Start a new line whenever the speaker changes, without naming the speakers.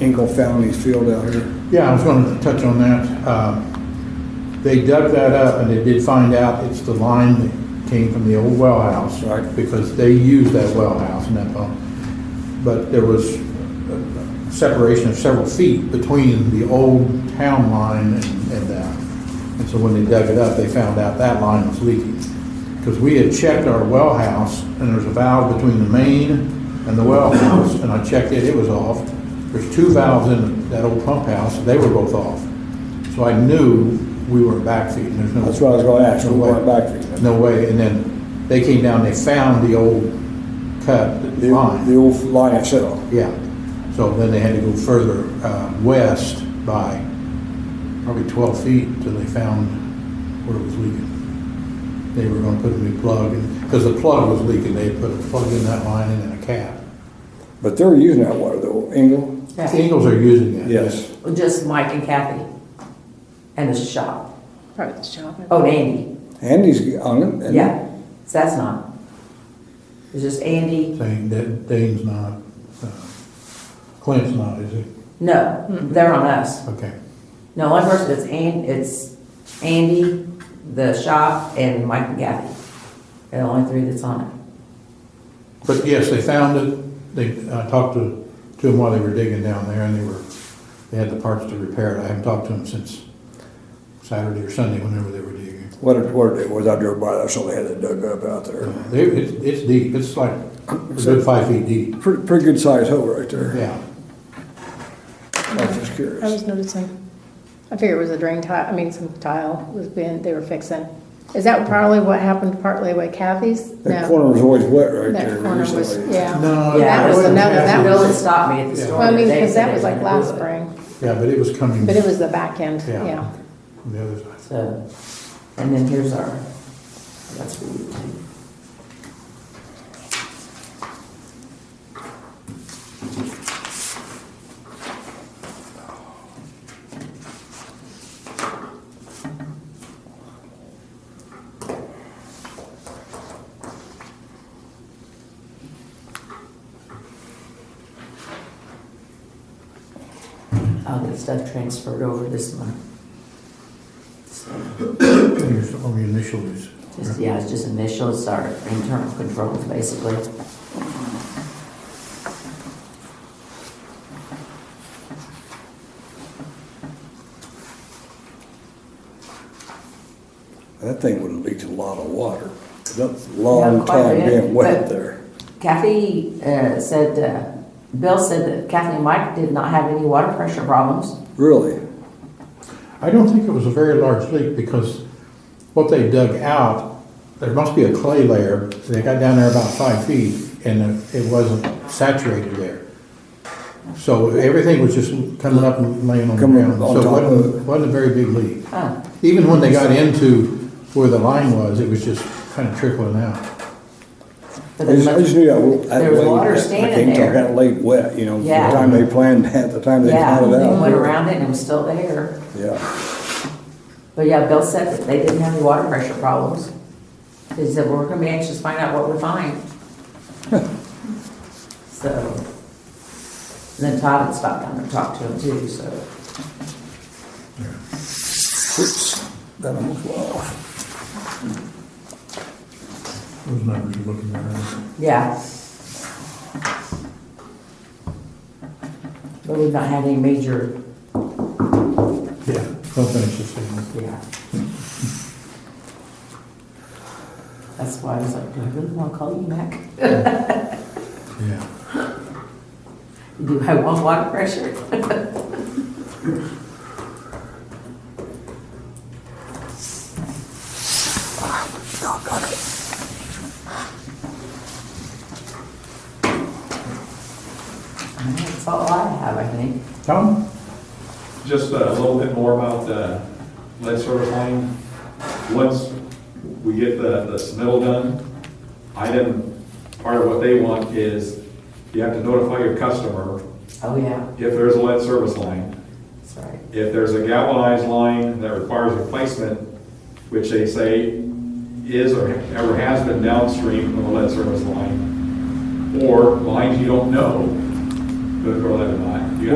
Engel Fountain Field out here.
Yeah, I was gonna touch on that. Uh, They dug that up and they did find out it's the line that came from the old well house.
Right.
Because they used that well house and that pump. But there was a separation of several feet between the old town line and, and that. And so when they dug it up, they found out that line was leaking. Because we had checked our well house and there's a valve between the main and the well house. And I checked it, it was off. There's two valves in that old pump house, they were both off. So I knew we were backfeeding, there's no.
That's what I was gonna ask,
no
we
way.
weren't backfeeding.
No way, and then they came down, they found the old cut
The, the
line,
old line itself.
yeah. So then they had to go further, uh, west by probably twelve feet till they found where it was leaking. They were gonna put a new plug in, because the plug was leaking, they had put a plug in that line and then a cap.
But they're using that water though, Engel?
The Ingles are using it.
Yes.
Just Mike and Kathy and the shop.
Probably the shop.
Oh, and Andy,
Andy's on it. and-
yeah, so that's not. It's just Andy,
Saying that Dane's not, uh, Clint's not, is it?
no, they're on us.
Okay.
No, one person is An, it's Andy, the shop, and Mike and Kathy. They're the only three that's on it.
But yes, they found it, they, I talked to, to them while they were digging down there, and they were, they had the parts to repair it, I haven't talked to them since Saturday or Sunday, whenever they were digging.
What it, what it was, I drove by, that's all they had that dug up out there.
They, it's, it's deep, it's like a good five feet deep,
Pretty, pretty good sized hole right there.
yeah.
I was just
I was
curious.
noticing. I figured it was a drain tile, I mean, some tile was being, they were fixing. Is that probably what happened partly with Kathy's?
That
No.
corner was always wet right
That
there
corner was,
recently.
yeah.
No,
Yeah,
Oh, That was
it
wasn't
another, that
Kathy's.
Bill had
was,
stopped me at the
Yeah.
store.
well, I mean,
today,
because
said
that
they
was
were
like
gonna do
last
it.
spring,
Yeah, but it was coming.
but it was the back end, yeah.
From the other side.
So, and then here's our, that's what we do. I'll get stuff transferred over this month. So.
Here's all the initials.
Just, yeah, it's just initials, our internal controls, basically.
That thing would have leaked a lot of water. That's a
Yeah,
long
quite
time
a bit,
being wet
but-
there.
Kathy uh, said, uh, Bill said that Kathy and Mike did not have any water pressure problems.
Really?
I don't think it was a very large leak because what they dug out, there must be a clay layer. They got down there about five feet and it wasn't saturated there. So everything was just coming up and laying on the
Coming
ground.
on
So it
top of
wasn't,
it.
wasn't a very big leak.
Huh.
Even when they got into where the line was, it was just kind of trickling out.
But
I just, I just knew that. that
There was
lake-
water
I
standing
think
there.
That lake wet, you know, the
Yeah.
time they planned that, the time they
Yeah,
planned it
they
out.
went around it and it was still there.
Yeah,
But yeah, Bill said that they didn't have any water pressure problems. He said, well, we're gonna be anxious to find out what we find. So, and then Todd had stopped down and talked to him too, so.
oops, that almost went off.
Those numbers you're looking at.
Yeah. But we've not had any major,
Yeah, something interesting.
yeah. That's why I was like, do I really want to call you back?
Yeah.
Do I want water pressure? That's all I have, I think.
Tom?
Just uh, a little bit more about the lead service line. Once we get the, the submittal done, item, part of what they want is you have to notify your customer
Oh, yeah,
if there's a lead service line.
that's right.
If there's a galvanized line that requires replacement, which they say is or ever has been downstream from a lead service line, or lines you don't know, good for lead or not,